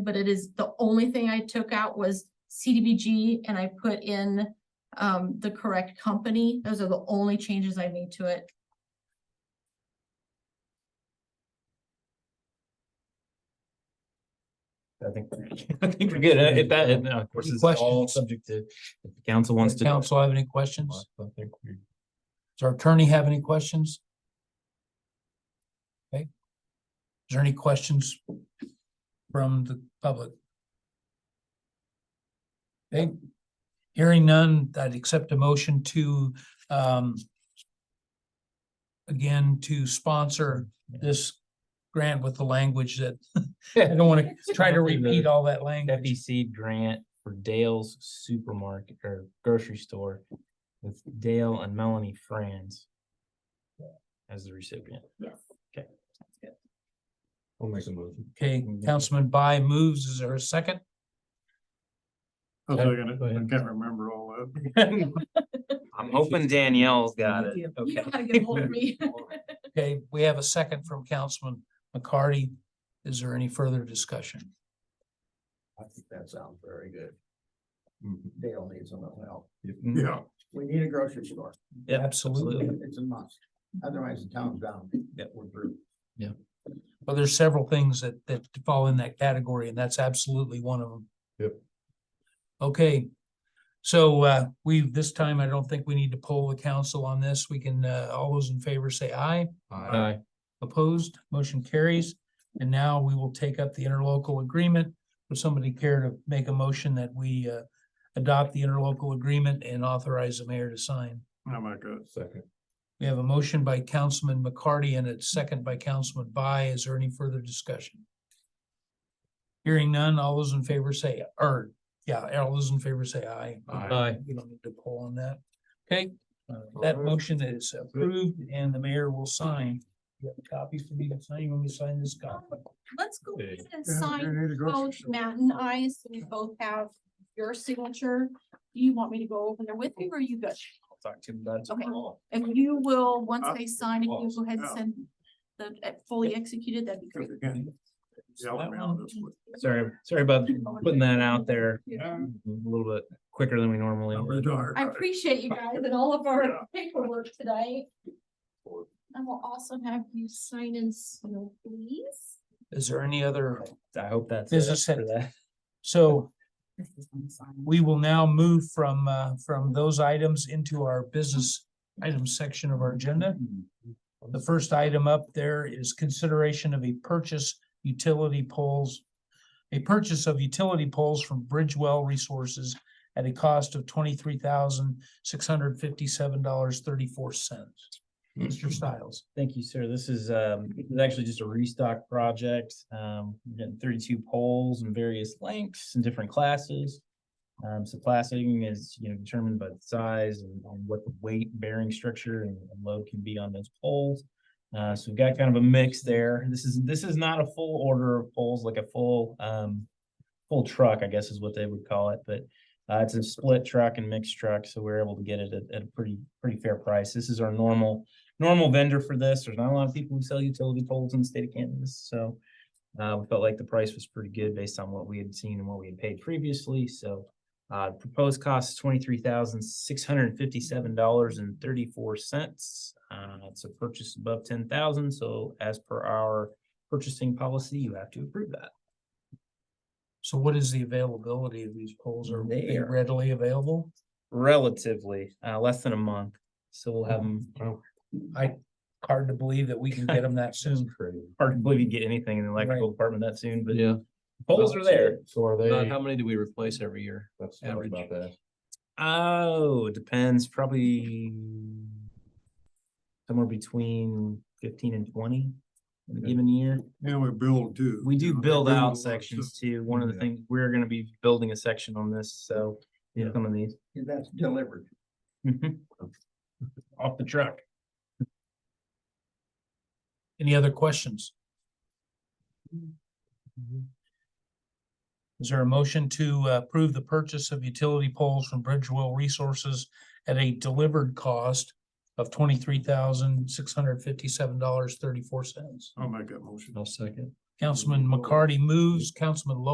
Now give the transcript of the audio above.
but it is, the only thing I took out was CDBG and I put in um, the correct company. Those are the only changes I made to it. I think, I think we're good. Uh, If that, and uh, of course, Any it's all questions? subject to, if the council wants Does to. council have any questions? Does our attorney have any questions? Okay. Is there any questions from the public? Okay, hearing none, I'd accept a motion to um again, to sponsor this grant with the language that I don't want to try to repeat all that language. FEC grant for Dale's supermarket or grocery store with Dale and Melanie Franz as the recipient. Yes. Okay. I'll make a motion. Okay, Mm-hmm. Councilman By moves. Is there a second? I was Okay, gonna, go I ahead. can't remember all that. I'm hoping Danielle's got it. You Okay. know how to get hold of me. Okay, we have a second from Councilman McCarty. Is there any further discussion? I think that sounds very good. Mm-hmm. Dale needs a little help. Mm, Yeah, We need a grocery store. Yeah, Absolutely. It's a must. Otherwise, the town's down. Yeah. We're through. Well, there's several things that, that fall in that category and that's absolutely one of them. Yep. Okay, so, uh, we, this time I don't think we need to poll the council on this. We can, uh, all those in favor say aye. Aye. Opposed, motion carries. And now we will take up the interlocal agreement. Would somebody care to make a motion that we uh adopt the interlocal agreement and authorize the mayor to sign? I'm like, uh, Second. We have a motion by Councilman McCarty and a second by Councilman By. Is there any further discussion? Hearing none, all those in favor say, or, yeah, all those in favor say aye. Uh, Aye. We don't need to poll on that. Okay, that motion is approved and the mayor will sign. You have a copy for me to sign when we sign this copy. Let's go ahead and yeah, you sign need a grocery both store. Matt and I, so we both have your signature. Do you want me to go over there with you or you good? I'll Talk to him about it. Okay. tomorrow. If you will, once Uh, they sign, if you go ahead and yeah. send the uh, fully executed, that'd be Cause great. you can't yell at me on this one. Sorry, sorry about putting that out there Yeah, a little bit quicker than we normally. I'm would. retired. I appreciate you guys and all of Yeah. our paperwork today. I will also have you sign in seal, please. Is there any other? I hope that's. Business it for sense. that. So This is unsigned. we will now move from, uh, from those items into our business items section of our agenda. The first item up there is consideration of a purchase utility poles. A purchase of utility poles from Bridgewell Resources at a cost of twenty-three thousand, six hundred fifty-seven dollars, thirty-four cents. Mr. Styles, Thank you, sir. This is, um, this is actually just a restock project. Um, we're getting thirty-two poles in various lengths and different classes. Um, so classing is, you know, determined by the size and and what the weight bearing structure and and load can be on those poles. Uh, so we've got kind of a mix there. This is, this is not a full order of poles, like a full, um, full truck, I guess is what they would call it, but uh, it's a split truck and mixed truck, so we're able to get it at, at a pretty, pretty fair price. This is our normal normal vendor for this. There's not a lot of people who sell utility poles in the state of Kansas, so. Uh, we felt like the price was pretty good based on what we had seen and what we had paid previously, so. Uh, proposed cost is twenty-three thousand, six hundred and fifty-seven dollars and thirty-four cents. Uh, it's a purchase above ten thousand, so as per our purchasing policy, you have to approve that. so what is the availability of these poles? Are They they are- readily available? Relatively, uh, less than a month, so we'll have them, Hard to believe that we can get them that soon. hard to believe you get anything in the Right. electrical department that soon, but Yeah. poles are there. So are About how many do we replace every year? Let's talk Average. about that. Oh, it depends. Probably somewhere between fifteen and twenty in a Okay. given year. And we build too. We you do know, they build a lot out of sections stuff. too. One of the Yeah. things, we're gonna be building a section on this, so Yeah. some of these. That's delivered. Mhm. Off the truck. Any other questions? Is there a motion to uh, approve the purchase of utility poles from Bridgewell Resources at a delivered cost of twenty-three thousand, six hundred fifty-seven dollars, thirty-four cents? I'll make that motion. I'll second. Councilman McCarty moves, Councilman Lo.